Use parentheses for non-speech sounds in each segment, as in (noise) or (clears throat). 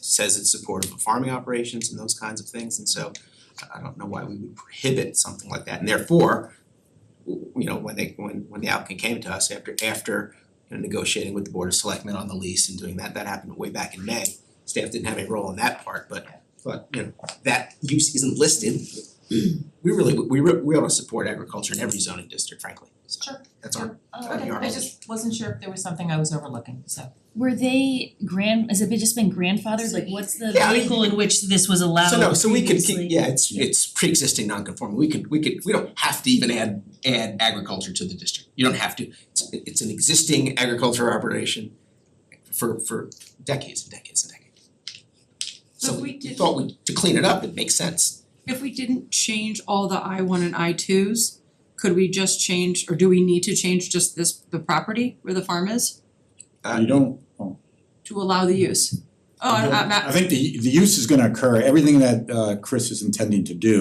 says it's supportive of farming operations and those kinds of things, and so I- I don't know why we would prohibit something like that, and therefore, w- you know, when they, when when the applicant came to us after after you know, negotiating with the Board of Selectmen on the lease and doing that, that happened way back in May. Staff didn't have any role in that part, but but you know, that use isn't listed. We really, we re- we ought to support agriculture in every zoning district, frankly, so Sure. that's our Oh, That'd be okay, our I just wasn't sure if there was something I was overlooking, so. Were they grand, has it been just been grandfathered, like what's the Yeah, I mean- vehicle in which this was allowed So no, so we could previously? keep, yeah, it's Yeah. it's pre-existing non-conforming, we could, we could, we don't have to even add add agriculture to the district, you don't have to. It's it's an existing agriculture operation for for decades and decades and decades. So So if we we did- thought we, to clean it up, it makes sense. If we didn't change all the I one and I twos, could we just change, or do we need to change just this, the property where the farm is, Uh, You don't, oh. to allow the use? Oh, You I'm don't- I'm not- I think the the use is gonna occur, everything that uh Chris is intending to do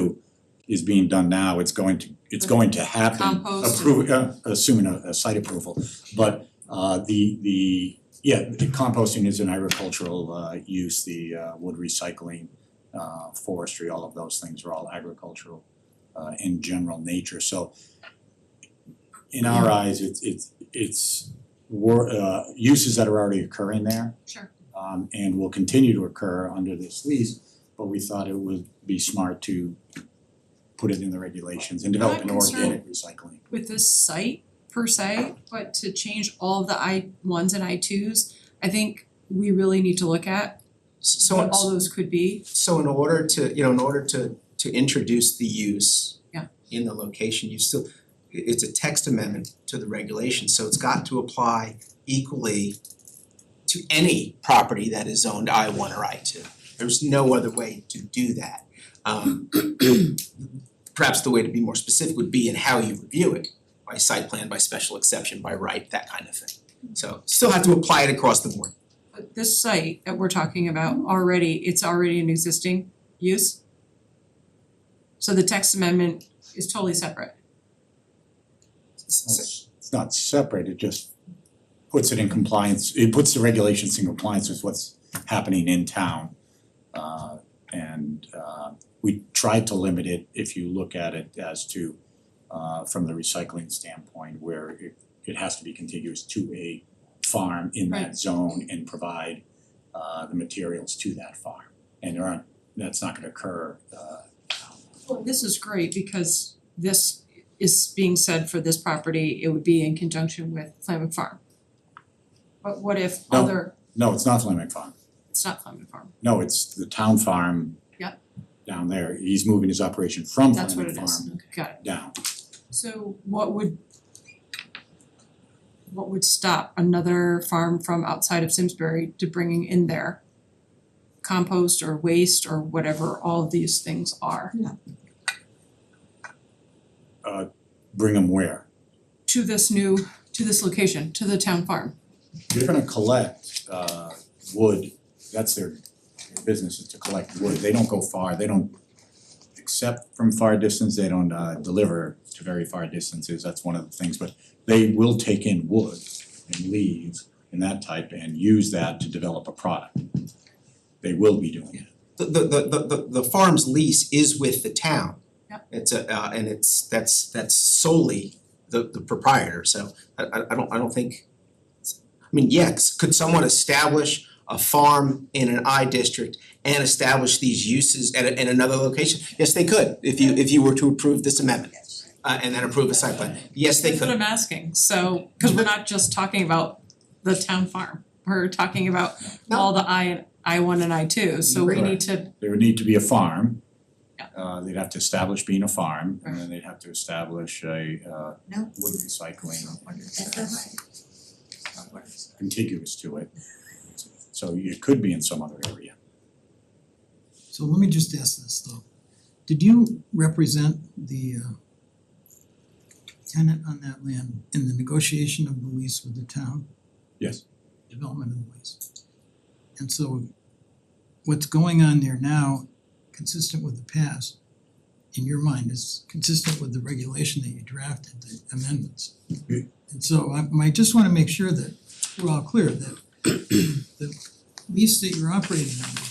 is being done now, it's going to, it's going to happen. Compost. Approve, uh assuming a a site approval, but uh the the, yeah, the composting is an agricultural uh use, the uh wood recycling, uh forestry, all of those things are all agricultural uh in general nature, so in our eyes, it's it's it's wor- uh uses that are already occurring there Sure. um and will continue to occur under this lease, but we thought it would be smart to put it in the regulations and develop an My concern- organic recycling. With this site per se, but to change all the I ones and I twos, I think we really need to look at so what all those could be. so in order to, you know, in order to to introduce the use Yeah. in the location, you still, i- it's a text amendment to the regulation, so it's got to apply equally to any property that is zoned I one or I two. There's no other way to do that. Um (clears throat) perhaps the way to be more specific would be in how you review it, by site plan, by special exception, by right, that kind of thing. So still have to apply it across the board. But this site that we're talking about already, it's already an existing use. So the text amendment is totally separate. S- s- It's it's not separate, it just puts it in compliance, it puts the regulations in compliance with what's happening in town. Uh and uh we tried to limit it, if you look at it as to uh from the recycling standpoint where it it has to be contiguous to a farm in that Right. zone and provide uh the materials to that farm. And there aren't, that's not gonna occur uh Well, this is great because this is being said for this property, it would be in conjunction with Flamin Farm. But what if No. other, no, it's not Fleming Farm. it's not Flamin Farm, No, it's the town farm. Yep. Down there, he's moving his operation from that's what Fleming it is, Farm got it. down. So what would what would stop another farm from outside of Simsbury to bringing in their compost or waste or whatever all of these things are Bring them where? to this new, to this location, to the town farm? They're gonna collect uh wood, that's their their business is to collect wood, they don't go far, they don't accept from far distance, they don't uh deliver to very far distances, that's one of the things, but they will take in wood and leaves and that type and use that to develop a product. They will be doing it. the the the the the farm's lease is with the town. Yep. It's a uh and it's that's that's solely the the proprietor, so I I I don't I don't think I mean, yes, could someone establish a farm in an I district and establish these uses at a- in another location? Yes, they could, if you if you were to approve this amendment uh and then approve a site plan, yes, they That's what could. I'm asking, so, cause we're not just talking about the town farm, we're talking about all the I I one and I two, so we need to, there would need to be a farm. Yeah. Uh they'd have to establish being a farm and then they'd have to establish a uh No. wood recycling That's not right. Not right. contiguous to it. So it could be in some other area. So let me just ask this though. Did you represent the uh tenant on that land in the negotiation of the lease with the town, Yes. development of the lease? And so what's going on there now, consistent with the past, in your mind, is consistent with the regulation that you drafted, the amendments. Mm. And so I I just wanna make sure that we're all clear that the lease that you're operating under